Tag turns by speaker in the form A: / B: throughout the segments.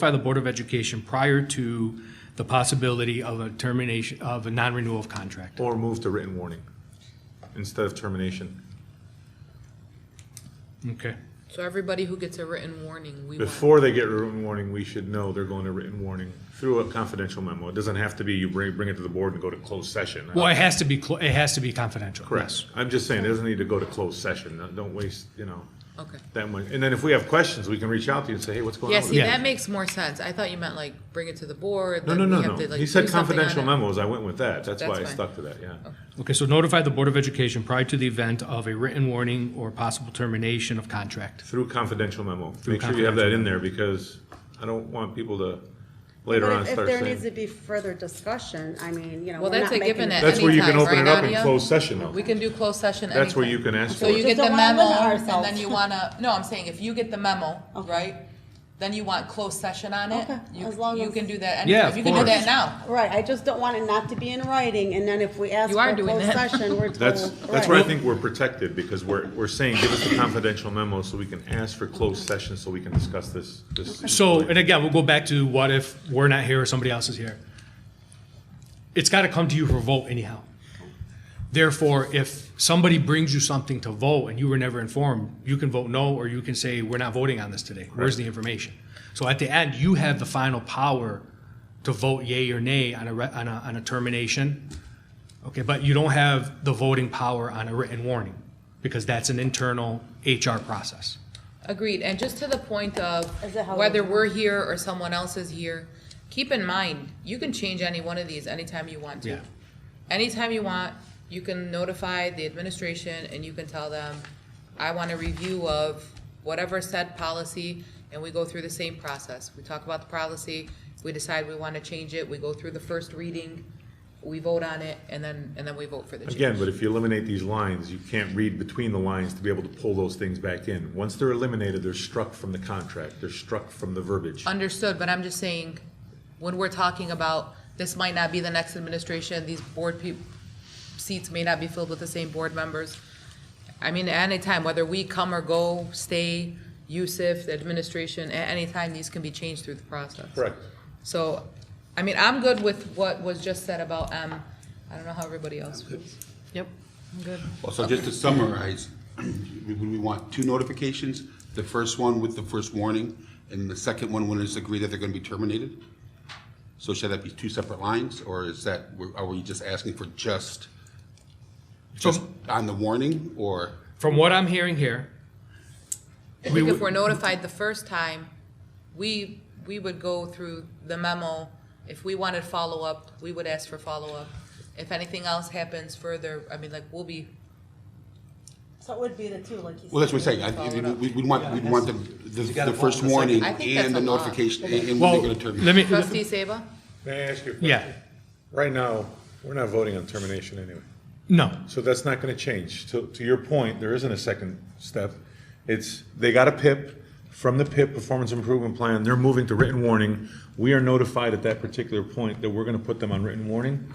A: by the Board of Education prior to the possibility of a termination, of a non-renewal of contract.
B: Or move to written warning instead of termination.
A: Okay.
C: So everybody who gets a written warning, we want.
B: Before they get written warning, we should know they're going to written warning through a confidential memo. It doesn't have to be you bring, bring it to the board and go to closed session.
A: Well, it has to be, clo- it has to be confidential.
B: Correct. I'm just saying, it doesn't need to go to closed session. Don't- Don't waste, you know,
C: Okay.
B: that much. And then if we have questions, we can reach out to you and say, hey, what's going on?
C: Yeah,
B: with
C: see,
B: it?
A: Yeah.
C: that makes more sense. I thought you meant like bring it to the board.
B: No,
C: then
B: no,
C: we
B: no,
C: have to,
B: no.
C: like,
B: He
C: do
B: said
C: something on
B: confidential
C: it.
B: memos. I went with that. That's
C: That's
B: why I
C: fine.
B: stuck to that, yeah.
A: Okay, so notify the Board of Education prior to the event of a written warning or possible termination of contract.
B: Through confidential memo. Make sure you have that in there because I don't want people to later on
D: But if- if
B: start
D: there
B: saying.
D: needs to be further discussion, I mean, you know, we're
C: Well,
D: not making.
C: that's a given at
D: it-
B: That's where you can
C: any time,
B: open
C: right,
B: it up in
C: Nadia?
B: closed session, though.
C: We can do closed session anytime.
B: That's where you can ask
C: So
B: for it.
C: you get
D: Just
C: the
D: don't wanna
C: memo,
D: limit
C: and
D: ourselves.
C: then you wanna, no, I'm saying, if you get the memo, right? Then you want closed session on it,
D: Okay,
C: you,
D: as long
C: you
D: as-
C: can do that
A: Yeah,
C: anytime,
A: of
C: you can do that
A: course.
C: now.
D: Right, I just don't want it not to be in writing, and then if we ask
C: You
D: for
C: are
D: a
C: doing
D: closed
C: that.
D: session, we're told.
B: That's, that's where I think we're protected, because we're, we're saying, give us the confidential memo so we can ask for closed session, so we can discuss this, this.
A: So, and again, we'll go back to what if we're not here or somebody else is here. It's got to come to you for vote anyhow. Therefore, if somebody brings you something to vote and you were never informed, you can vote no, or you can say, we're not voting on this today. Where's the information? So at the end, you have the final power to vote yea or nay on a, re- on a, on a termination. Okay, but you don't have the voting power on a written warning, because that's an internal HR process.
C: Agreed, and just to the point of
D: Is it how
C: whether
D: we-
C: we're here or someone else is here, keep in mind, you can change any one of these anytime you want to.
A: Yeah.
C: Anytime you want, you can notify the administration and you can tell them, I want a review of whatever said policy, and we go through the same process. We talk about the policy, we decide we wanna change it, we go through the first reading, we vote on it, and then, and then we vote for the change.
B: Again, but if you eliminate these lines, you can't read between the lines to be able to pull those things back in. Once they're eliminated, they're struck from the contract, they're struck from the verbiage.
C: Understood, but I'm just saying, when we're talking about, this might not be the next administration, these board peop, seats may not be filled with the same board members. I mean, at any time, whether we come or go, stay, Yusuf, the administration, at any time, these can be changed through the process.
B: Correct.
C: So, I mean, I'm good with what was just said about M. I don't know how everybody else feels. Yep, I'm good.
E: Well, so just to summarize, we, we want two notifications, the first one with the first warning, and the second one when it's agreed that they're gonna be terminated? So should that be two separate lines, or is that, are we just asking for just, just on the warning, or?
A: From what I'm hearing here,
C: I think if we're notified the first time, we, we would go through the memo. If we wanted follow-up, we would ask for follow-up. If anything else happens further, I mean, like, we'll be,
D: So it would be the two, like you said.
E: Well, that's what I'm saying, I, we, we want, we want the, the- the first warning
C: I think that's
E: and
C: a
E: the
C: lot.
E: notification, and and
A: well,
E: when they're gonna terminate.
A: let me,
C: trustee Seba?
B: May I ask you a question?
A: yeah,
B: Right now, we're not voting on termination anyway.
A: no.
B: So that's not gonna change. To, to your point, there isn't a second step. It's, they got a PIP, from the PIP, Performance Improvement Plan, they're moving to written warning. We are notified at that particular point that we're gonna put them on written warning.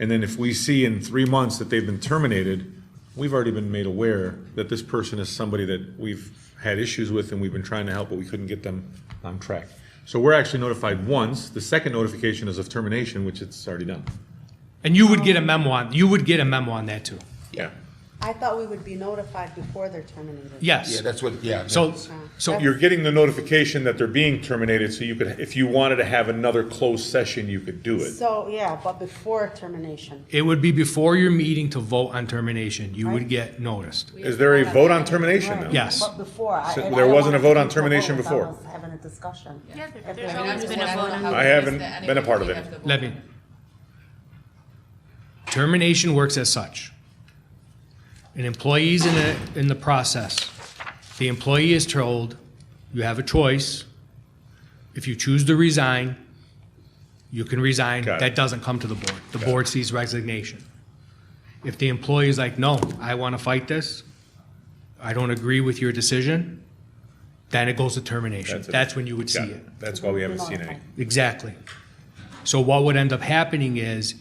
B: And then if we see in three months that they've been terminated, we've already been made aware that this person is somebody that we've had issues with and we've been trying to help, but we couldn't get them on track. So we're actually notified once. The second notification is of termination, which it's already done.
A: And you would get a memo on, you would get a memo on that too.
B: Yeah.
D: I thought we would be notified before they're terminated.
E: Yeah,
A: Yes.
E: that's what, yeah.
A: So,
E: that's-
A: so,
B: You're getting the notification that they're being terminated, so you could, if you wanted to have another closed session, you could do it.
D: So, yeah, but before termination.
A: it would be before your meeting to vote on termination, you would get noticed.
B: Is there a vote on termination now?
D: Right.
A: Yes.
D: But before. I-
B: So
D: and I
B: there
D: don't
B: wasn't a
D: wanna
B: vote on
D: come to
B: termination
D: without
B: before?
D: us Having a discussion.
F: Yeah, there-
D: If
F: there's
D: we-
F: always been a vote on
B: I haven't been a part of it.
A: Let me. Termination works as such. An employee's in a, in the process. The employee is told, you have a choice. If you choose to resign, you can resign.
B: Got it.
A: That doesn't come to the board. The board sees resignation. If the employee is like, no, I want to fight this, I don't agree with your decision, then it goes to termination.
B: it.
A: That's when you would see
B: Got
A: it.
B: That's why we haven't seen any.
A: Exactly. So what would end up happening is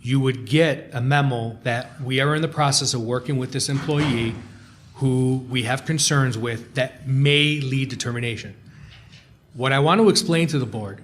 A: you would get a memo that we are in the process of working with this employee who we have concerns with that may lead to termination. What I want to explain to the board